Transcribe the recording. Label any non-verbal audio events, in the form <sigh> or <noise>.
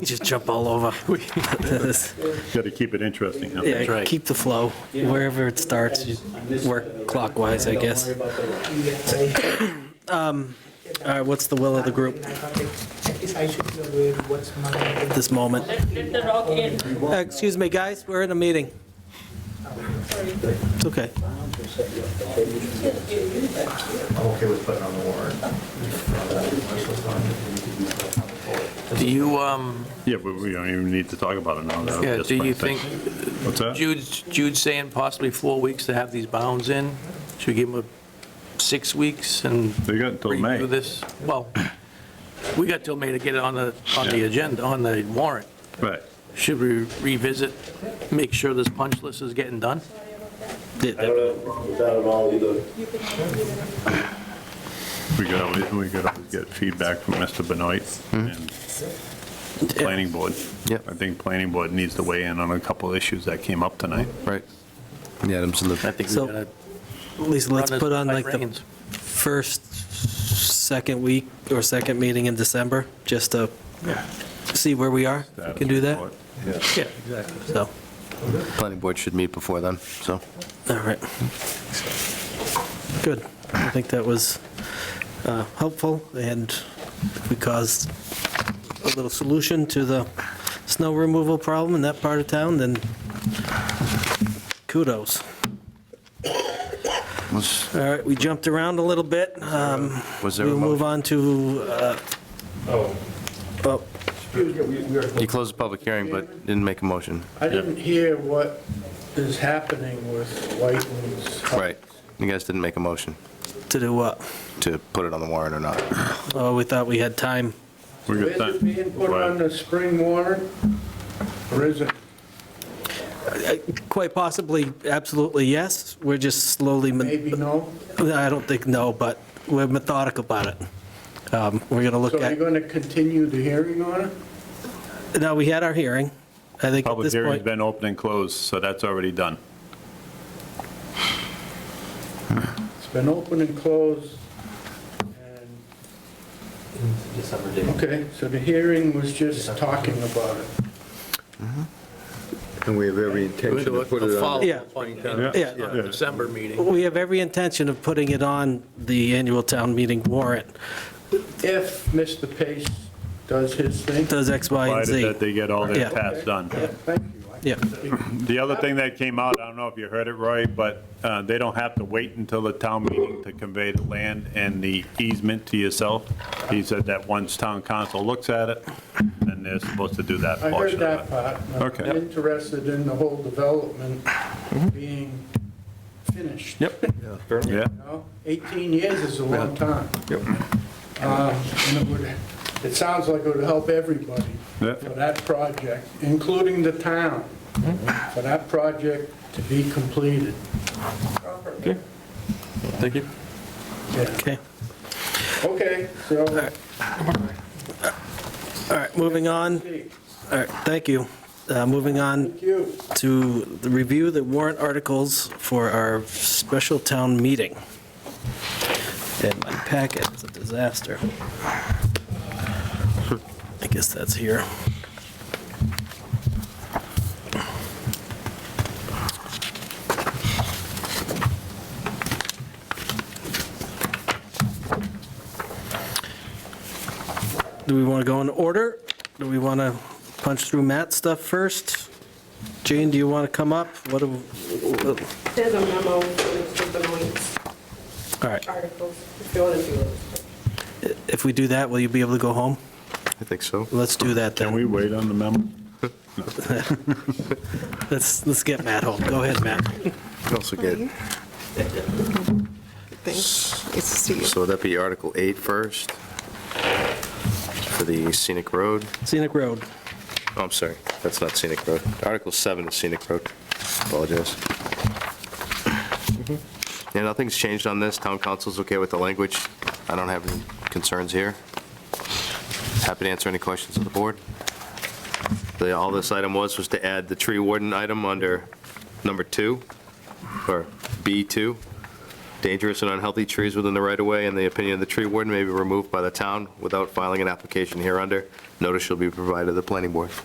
Just jump all <laughs> over. Got to keep it interesting, huh? Yeah, Keep the flow. Wherever it starts, you work clockwise, I guess. <coughs> Um, All right, what's the will of the group I should be aware what's my. at this moment? Let the rock in. Uh, Excuse me, guys, we're in a meeting. It's okay. okay with putting on the warrant. Do you, um, Yeah, but we don't even need to talk about it now. That'll yeah, Oh, just do bring you things- think, What's that? Jude's, Jude's saying possibly four weeks to have these bounds in? Should we give them a six weeks and They got until redo May, this? Well, we got till May to get it on the, on the Yeah. agenda, on the warrant. right. Should we revisit, make sure this punch list is getting done? I don't have a problem with that at all either. We could always, we could always get feedback from Mr. Benoit Hmm. and planning board. Yep. I think planning board needs to weigh in on a couple issues that came up tonight. Right. The items in I the, think So, we're gonna. At least let's run it put on by like the reins. first, second week or second meeting in December, just to see where we are. If we Can do that, Yeah, exactly. so, planning board should meet before then, so. all right. Good. I think that was uh, helpful, and we caused a little solution to the snow removal problem in that part of town, then kudos. Was All right, we jumped around a little bit. Um, was there a We'll move motion? on to, uh, oh, You closed the public hearing, but didn't make a motion. I didn't hear what is happening with Whiten's. Right. You guys didn't make a motion to do what? to put it on the warrant or not. Oh, we thought we had time. We Is got it being put on time. the spring warrant? Or is it? Quite possibly, absolutely, yes. We're just slowly, me- Maybe no? I don't think, no, but we're methodical about it. Um, We're going to look So you're at, going to continue the hearing on it? now, we had our hearing. I think at Public this hearing's point, been open and closed, so that's already done. It's been open and closed, and, December date. okay, so the hearing was just talking about it. And we have every intention We'll to do put a- it a on. Yeah. follow-up on the Yeah. on the December meeting. we have every intention of putting it on the annual town meeting warrant. If Mr. Pace does his thing. Does X, Y, and Provided Z. that they get all Yeah. their tasks done. Thank you. I Yeah. The other thing that came out, I don't know if you heard it, Roy, but uh, they don't have to wait until the town meeting to convey the land and the easement to yourself. He said that once town council looks at it, then they're supposed to do that I heard portion that of it. part. and Okay. Mm-hmm. I'm interested in the whole development being finished. Yep. Yeah, know, 18 years is a long time. Uh, And it would, it sounds like it would help everybody Yeah. for that project, including the town, Mm-hmm. for that project to be completed. Thank you. Okay. Okay, so, All right, moving on. All right, thank you. Uh, Moving on thank you. to the review the warrant articles for our special town meeting. And my packet is a disaster. I guess that's here. Do we want to go in order? Do we want to punch through Matt's stuff first? Jane, do you want to come up? What, do- There's a memo with the Benoit's all right, articles, if you want to do it. if we do that, will you be able to go home? I think so. Let's do that can then. we wait on the memo? Let's, let's get Matt home. Go ahead, Matt. You can also get, Thanks. Nice to see you. so that'd be Article 8 first for the scenic road. Scenic Road. Oh, I'm sorry, that's not scenic road. Article 7 is scenic road. Apologize. Yeah, nothing's changed on this. Town council's okay with the language. I don't have any concerns here. Happy to answer any questions of the board. The- All this item was, was to add the tree warden item under number 2, or B2, Dangerous and unhealthy trees within the right-of-way, in the opinion of the tree warden, may be removed by the town without filing an application hereunder. Notice shall be provided to the planning board.